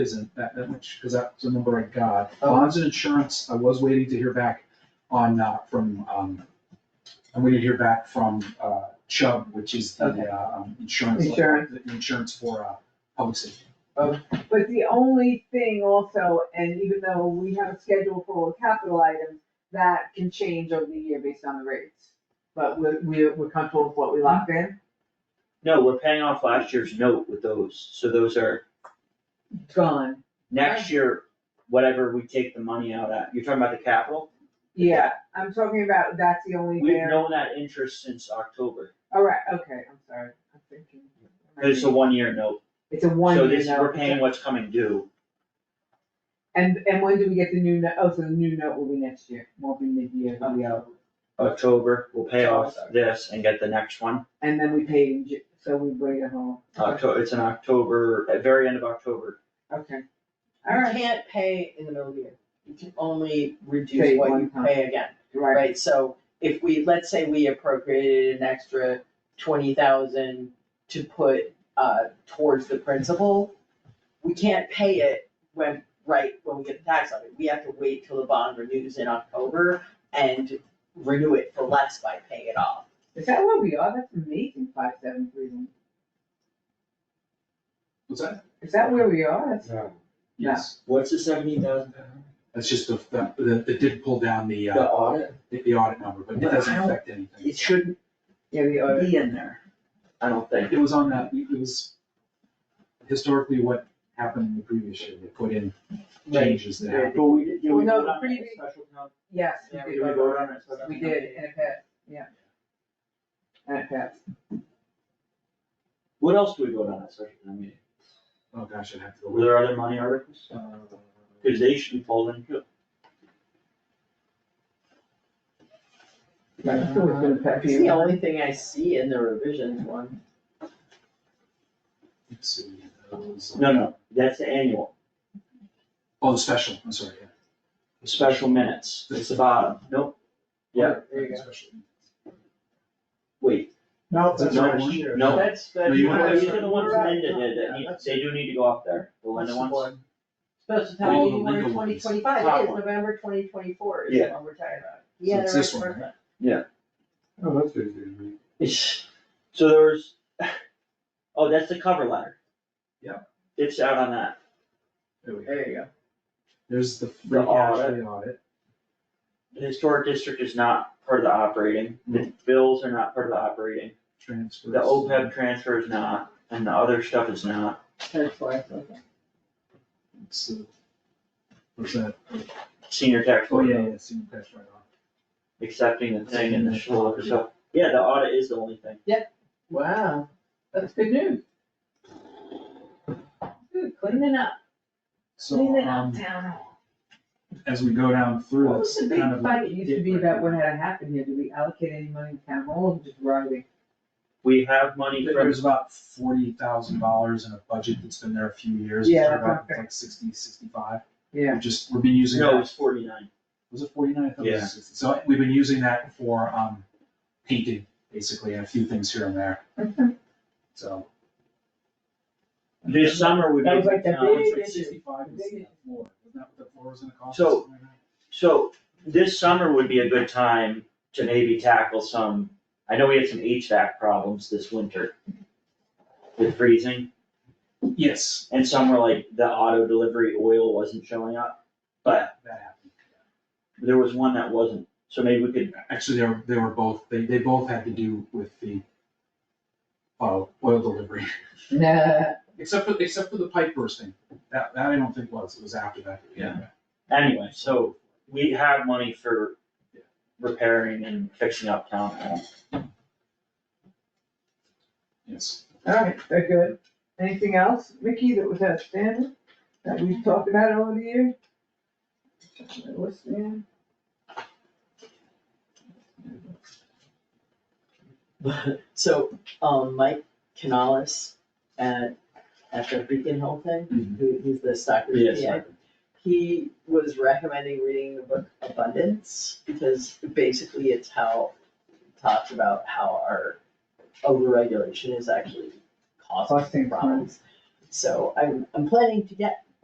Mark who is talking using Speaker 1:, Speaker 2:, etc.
Speaker 1: isn't that, that much, because that's the number I got.
Speaker 2: Oh.
Speaker 1: Bonds and insurance, I was waiting to hear back on, uh, from, um, I'm waiting to hear back from, uh, Chubb, which is the,
Speaker 2: Okay.
Speaker 1: uh, um, insurance.
Speaker 2: Insurance.
Speaker 1: the Insurance for, uh, public safety.
Speaker 2: But the only thing also, and even though we have a schedule for all the capital items, that can change over the year based on the rates. But we're, we're, we're comfortable with what we locked in,
Speaker 3: No, we're paying off last year's note with those, so those are,
Speaker 2: gone,
Speaker 3: next year, whatever we take the money out at, you're talking about the capital?
Speaker 2: yeah, I'm talking about, that's the only
Speaker 3: We've
Speaker 2: there,
Speaker 3: known that interest since October,
Speaker 2: alright, okay, I'm sorry, I'm thinking.
Speaker 3: it's a one-year note,
Speaker 2: It's a one
Speaker 3: so
Speaker 2: year
Speaker 3: this, we're
Speaker 2: note.
Speaker 3: paying what's coming due.
Speaker 2: And, and when do we get the new note, oh, so the new note will be next year, won't be mid-year, it'll be out.
Speaker 3: October, we'll pay off this and get the next one,
Speaker 2: and then we pay in, Ju- so we bring it home,
Speaker 3: Octo, it's in October, at very end of October.
Speaker 2: okay,
Speaker 4: You
Speaker 2: alright,
Speaker 4: can't pay in the middle of the year, you can only
Speaker 2: Pay
Speaker 4: reduce what
Speaker 2: one
Speaker 4: you
Speaker 2: time.
Speaker 4: pay again,
Speaker 2: right.
Speaker 4: right? So if we, let's say we appropriated an extra twenty thousand to put uh towards the principal, we can't pay it when, right, when we get the tax on it, we have to wait till the bond renews in October and renew it for less by paying it off.
Speaker 2: Is that where we are? That's amazing, five seven three one.
Speaker 1: What's that?
Speaker 2: Is that where we are? That's, Yeah.
Speaker 1: Yes,
Speaker 3: What's the seventeen thousand?
Speaker 1: that's just the, the- the, it did pull down the,
Speaker 3: The
Speaker 1: uh,
Speaker 3: audit,
Speaker 1: the the audit number, but it
Speaker 3: But
Speaker 1: doesn't
Speaker 3: I don't-
Speaker 1: affect anything.
Speaker 3: it shouldn't
Speaker 2: yeah, we are.
Speaker 3: be in there, I don't think,
Speaker 1: It was on that, it was historically what happened in the previous year, they put in changes there.
Speaker 3: but we, did did we
Speaker 2: Well, Oh, no,
Speaker 3: vote on
Speaker 2: pretty
Speaker 3: a
Speaker 2: big-
Speaker 3: special town?
Speaker 2: Yes, we
Speaker 3: Did we
Speaker 2: did,
Speaker 3: vote on a special
Speaker 2: we
Speaker 3: town
Speaker 2: did,
Speaker 3: meeting?
Speaker 2: and it passed, yeah. And it passed.
Speaker 3: What else do we vote on at special town meeting?
Speaker 1: Oh, gosh, I'd have to go.
Speaker 3: Were there other money articles?
Speaker 1: Uh,
Speaker 3: Cause they should be pulled in too.
Speaker 2: Yeah, so it's gonna pass.
Speaker 4: It's the only thing I see in the revisions one.
Speaker 1: Let's see. uh, was-
Speaker 3: No, no, that's the annual,
Speaker 1: Oh, the special, I'm sorry, yeah.
Speaker 3: the special minutes, it's the bottom, nope. Yeah,
Speaker 4: There you go.
Speaker 1: Special.
Speaker 3: wait,
Speaker 5: No,
Speaker 1: That's
Speaker 5: that's
Speaker 1: not
Speaker 5: last
Speaker 1: one.
Speaker 5: year.
Speaker 3: No.
Speaker 4: That's, that's.
Speaker 1: No, you
Speaker 3: these
Speaker 1: wanna-
Speaker 3: are the ones Linda did, that
Speaker 5: Yeah,
Speaker 3: need-
Speaker 5: that's-
Speaker 3: they do need to go up there, the Linda ones.
Speaker 4: Supposed to
Speaker 1: Oh,
Speaker 4: tell
Speaker 1: the
Speaker 4: you we're
Speaker 1: legal
Speaker 4: twenty
Speaker 1: ones.
Speaker 4: twenty-five,
Speaker 3: Top
Speaker 4: it is
Speaker 3: one.
Speaker 4: November twenty twenty-four is
Speaker 3: Yeah.
Speaker 4: what we're talking about.
Speaker 1: So
Speaker 4: Yeah,
Speaker 1: it's
Speaker 4: the
Speaker 1: this
Speaker 4: right
Speaker 1: one,
Speaker 4: person.
Speaker 5: Oh, that's easy to read.
Speaker 3: It's- So there's, oh, that's the cover letter.
Speaker 1: Yeah.
Speaker 3: It's out on that,
Speaker 1: There we go.
Speaker 4: There you go.
Speaker 1: There's the free cash for the audit.
Speaker 3: the historic district is not part of the operating,
Speaker 1: Mm-hmm.
Speaker 3: the bills are not part of the operating,
Speaker 1: transfers.
Speaker 3: the OPEB transfer is not, and the other stuff is not.
Speaker 4: That's why I thought that.
Speaker 1: It's, uh, What's that?
Speaker 3: senior tax
Speaker 1: Oh,
Speaker 3: lawyer
Speaker 1: yeah, yeah, senior cash right off.
Speaker 3: accepting the thing and the schlock, so, yeah, the audit is the only thing.
Speaker 4: Wow, that's good news. Good, cleaning up,
Speaker 1: So,
Speaker 4: cleaning up
Speaker 1: um,
Speaker 4: town hall.
Speaker 1: as we go down through,
Speaker 2: What was
Speaker 1: it's
Speaker 2: the big
Speaker 1: kind of.
Speaker 2: fight, it used to be about what had happened here, did we allocate any money to town hall, or just writing?
Speaker 3: We have money from,
Speaker 1: There's about forty thousand dollars in a budget that's been there a few years.
Speaker 2: Yeah,
Speaker 1: It's about
Speaker 2: okay.
Speaker 1: Like sixty, sixty-five.
Speaker 2: Yeah,
Speaker 1: We've just, we've been using
Speaker 3: no,
Speaker 1: that,
Speaker 3: it's forty-nine,
Speaker 1: was it forty-nine? I thought it was
Speaker 3: Yeah.
Speaker 1: 60. So we've been using that for, um, painting, basically, and a few things here and there, so.
Speaker 3: this summer we
Speaker 2: That
Speaker 3: made,
Speaker 2: was like the
Speaker 3: um,
Speaker 2: big- issue.
Speaker 1: Sixty-five was the
Speaker 2: Big issue.
Speaker 1: floor, wasn't that what the floor was gonna cost?
Speaker 3: So-
Speaker 1: us?
Speaker 3: so, this summer would be a good time to maybe tackle some, I know we had some HVAC problems this winter. With freezing,
Speaker 1: Yes,
Speaker 3: and some were like, the auto delivery oil wasn't showing up, but
Speaker 1: that happened.
Speaker 3: there was one that wasn't, so maybe we could,
Speaker 1: Actually, they were, they were both, they, they both had to do with the, uh, oil delivery,
Speaker 2: nah,
Speaker 1: except for, except for the pipe bursting, that, that I don't think was, it was after that.
Speaker 3: Yeah. anyway, so, we have money for. Repairing and fixing up town hall.
Speaker 1: Yes.
Speaker 2: alright, very good. Anything else, Mickey, that was outstanding, that we've talked about over the year? What's, yeah?
Speaker 4: So, um, Mike Canales at, at the Beacon Hill thing,
Speaker 1: Mhm.
Speaker 4: who, he's the Stockbridge
Speaker 3: Yes,
Speaker 4: PA. He was recommending reading the book Abundance, because basically it's how, talks about how our overregulation is actually causing
Speaker 2: Costing
Speaker 4: problems. So I'm, I'm planning to get